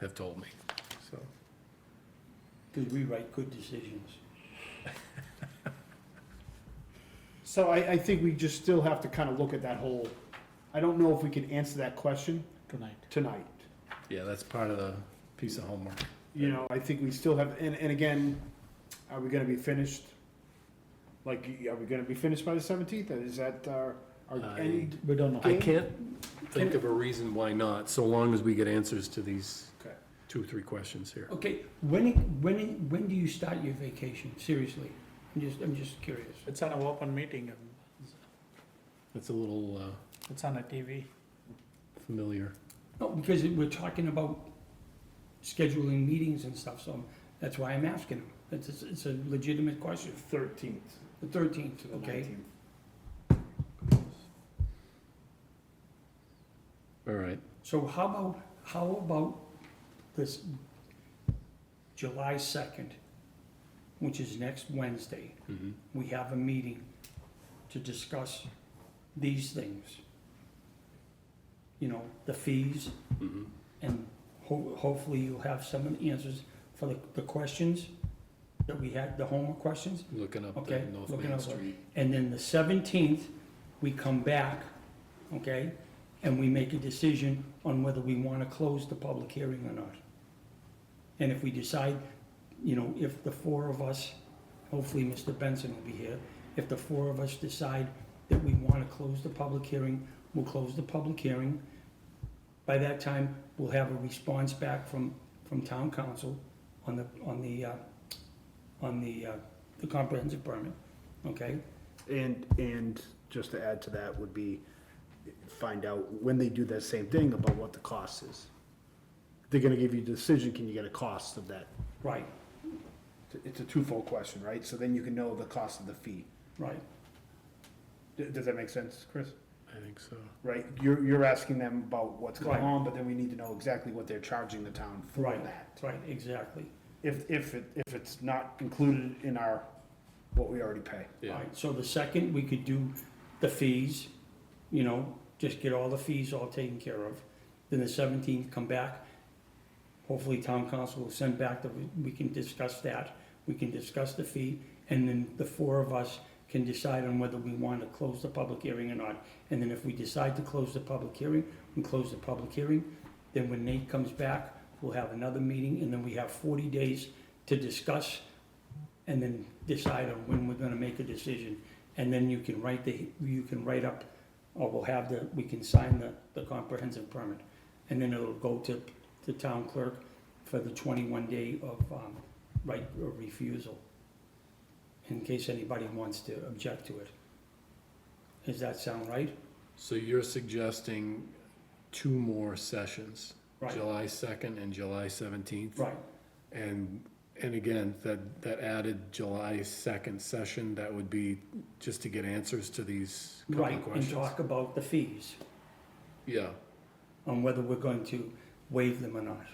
have told me, so. Because we write good decisions. So I, I think we just still have to kind of look at that whole, I don't know if we can answer that question Tonight. tonight. Yeah, that's part of the piece of homework. You know, I think we still have, and, and again, are we gonna be finished? Like, are we gonna be finished by the seventeenth? Is that our, our I- end? We don't know. Uh, I can't think of a reason why not, so long as we get answers to these Okay. two, three questions here. Okay, when, when, when do you start your vacation, seriously? I'm just, I'm just curious. It's an open meeting, It's a little uh, it's on a TV. familiar. No, because we're talking about scheduling meetings and stuff, so that's why I'm asking. It's, it's- it's a legitimate question. Thirteenth The thirteenth, okay? All right, So how about, how about this July second, which is next Wednesday? mhm. we have a meeting to discuss these things. You know, the fees, Mhm. and ho- hopefully you'll have some answers for the, the questions that we had, the homework questions. looking up the Okay, North looking Main up what- Street. And then the seventeenth, we come back, okay? And we make a decision on whether we wanna close the public hearing or not. And if we decide, you know, if the four of us, hopefully Mr. Benson will be here, if the four of us decide that we wanna close the public hearing, we'll close the public hearing. By that time, we'll have a response back from, from town council on the, on the, uh, on the, uh, the comprehensive permit, okay? And, and just to add to that would be, find out when they do that same thing about what the cost is. They're gonna give you a decision, can you get a cost of that? Right, It's a twofold question, right? So then you can know the cost of the fee. right. D- Does that make sense, Chris? I think so. Right, you're, you're asking them about what's going Right. on, but then we need to know exactly what they're charging the town for Right. that. Right, exactly. If, if, it- if it's not included in our, what we already pay. Yeah, Right, so the second, we could do the fees, you know, just get all the fees all taken care of. Then the seventeenth, come back. Hopefully town council will send back the, we can discuss that. We can discuss the fee, and then the four of us can decide on whether we want to close the public hearing or not. And then if we decide to close the public hearing, we close the public hearing. Then when Nate comes back, we'll have another meeting, and then we have forty days to discuss and then decide on when we're gonna make a decision. And then you can write the, you can write up, or we'll have the, we can sign the, the comprehensive permit. And then it'll go to, the town clerk for the twenty-one day of, um, right of refusal. In case anybody wants to object to it. Does that sound right? so you're suggesting two more sessions? Right. July second and July seventeenth? Right, And, and again, that, that added July second session, that would be just to get answers to these couple of right, and questions? talk about the fees, Yeah, on whether we're going to waive them or not.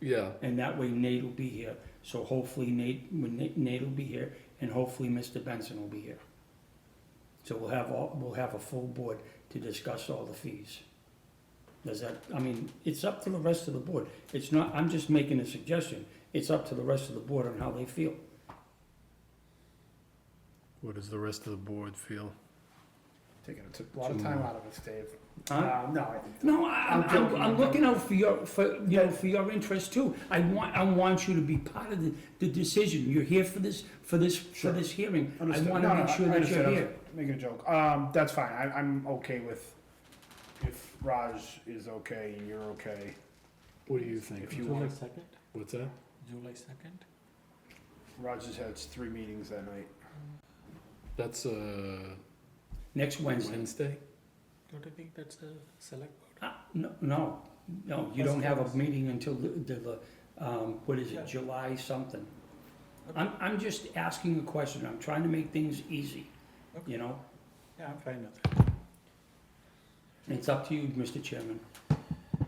yeah, And that way Nate will be here, so hopefully Nate, when Nate, Nate will be here, and hopefully Mr. Benson will be here. So we'll have all, we'll have a full board to discuss all the fees. Does that, I mean, it's up to the rest of the board, it's not, I'm just making a suggestion, it's up to the rest of the board on how they feel. what does the rest of the board feel? Taking a t- lot of time out of us, Dave. Huh? Uh, No, I think No, I, I'm, I'm I'm, joking, I'm I'm looking out for your, for, you know, for your interest too. I want, I want you to be part of the, the decision. You're here for this, for this, for Sure. this hearing. I Understood. wanna No, no, make sure I that understood. you're I was here. Making a joke. Um, that's fine. I, I'm okay with, if Raj is okay and you're okay. What do you think? If you want, second? What's that? July second? Raj has had three meetings that night. Mm. That's, uh, Next Wednesday. Wednesday? Don't you think that's a select board? Uh, No, no, no, you don't have a meeting until the, the, um, what is Yeah. it, July something. I'm, I'm just asking a question. I'm trying to make things easy, you know? Yeah, I'm fine with that. It's up to you, Mr. Chairman.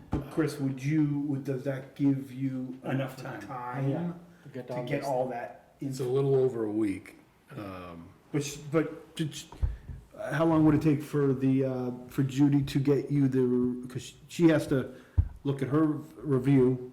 But Chris, would you, would, does that give you Enough time. Time to get all that It's in, a little over a week. Um, but, but, did sh- how long would it take for the, uh, for Judy to get you the, cause she has to look at her review,